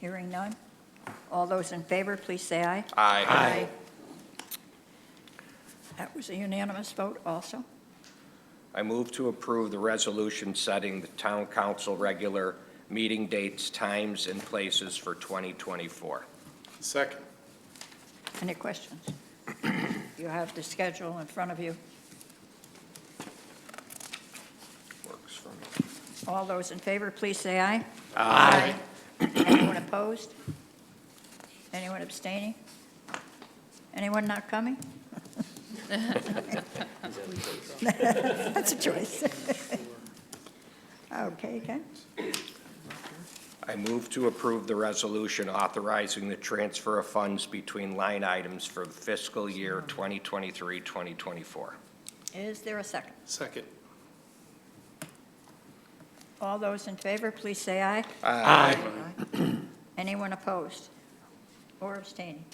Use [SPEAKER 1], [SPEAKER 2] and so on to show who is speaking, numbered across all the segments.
[SPEAKER 1] Hearing none. All those in favor, please say aye.
[SPEAKER 2] Aye.
[SPEAKER 1] That was a unanimous vote also.
[SPEAKER 2] I move to approve the resolution setting the town council regular meeting dates, times, and places for 2024.
[SPEAKER 3] Second.
[SPEAKER 1] Any questions? You have the schedule in front of you.
[SPEAKER 2] Works for me.
[SPEAKER 1] All those in favor, please say aye. Aye. Anyone opposed? Anyone abstaining? Anyone not coming? That's a choice. Okay, Ken,
[SPEAKER 2] I move to approve the resolution authorizing the transfer of funds between line items for fiscal year 2023-2024.
[SPEAKER 1] is there a second?
[SPEAKER 3] Second.
[SPEAKER 1] All those in favor, please say aye.
[SPEAKER 2] Aye.
[SPEAKER 1] Anyone opposed or abstaining?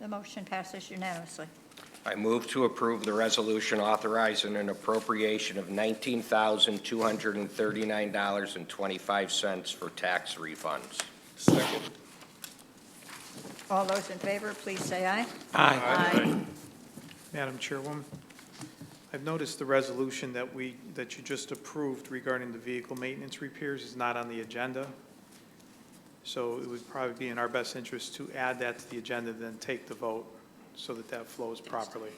[SPEAKER 1] The motion passes unanimously.
[SPEAKER 2] I move to approve the resolution authorizing an appropriation of $19,239.25 for tax refunds.
[SPEAKER 3] Second.
[SPEAKER 1] All those in favor, please say aye.
[SPEAKER 4] Madam Chairwoman, I've noticed the resolution that we, that you just approved regarding the vehicle maintenance repairs is not on the agenda. So it would probably be in our best interest to add that to the agenda, then take the vote, so that that flows properly.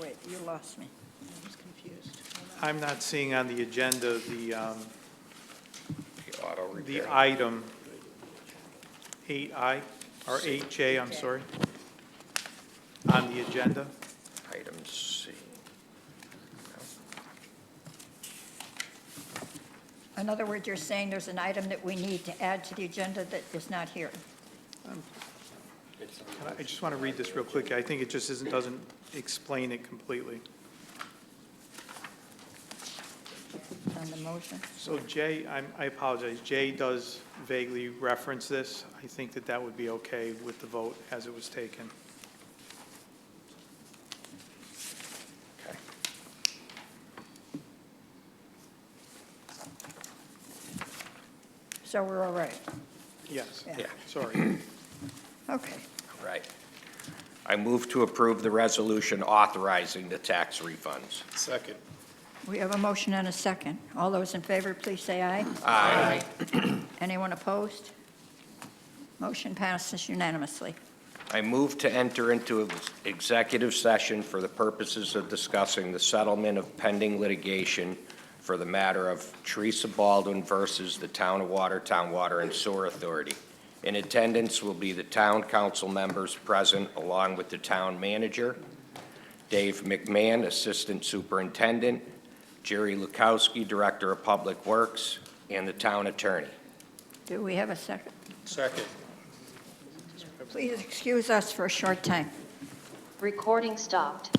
[SPEAKER 1] Wait, you lost me. I was confused.
[SPEAKER 4] I'm not seeing on the agenda the, um,
[SPEAKER 2] The auto
[SPEAKER 4] the
[SPEAKER 2] repair.
[SPEAKER 4] item 8I, or 8J, I'm sorry, on the agenda.
[SPEAKER 2] Item C.
[SPEAKER 1] In other words, you're saying there's an item that we need to add to the agenda that is not here.
[SPEAKER 4] And I- I just want to read this real quick. I think it just isn't, doesn't explain it completely.
[SPEAKER 1] On the motion,
[SPEAKER 4] So Jay, I'm- I apologize, Jay does vaguely reference this. I think that that would be okay with the vote as it was taken.
[SPEAKER 2] Okay.
[SPEAKER 1] so we're all right.
[SPEAKER 4] Yes,
[SPEAKER 1] Yeah.
[SPEAKER 2] Yeah,
[SPEAKER 4] sorry.
[SPEAKER 1] Okay,
[SPEAKER 2] right. I move to approve the resolution authorizing the tax refunds.
[SPEAKER 3] Second.
[SPEAKER 1] we have a motion and a second. All those in favor, please say aye.
[SPEAKER 2] Aye.
[SPEAKER 1] Anyone opposed? Motion passes unanimously.
[SPEAKER 2] I move to enter into executive session for the purposes of discussing the settlement of pending litigation for the matter of Teresa Baldwin versus the Town of Watertown Water and Sewer Authority. In attendance will be the town council members present, along with the town manager, Dave McMahon, Assistant Superintendent, Jerry Lukowski, Director of Public Works, and the town attorney.
[SPEAKER 1] Do we have a second?
[SPEAKER 3] Second.
[SPEAKER 1] Please excuse us for a short time.
[SPEAKER 5] Recording stopped.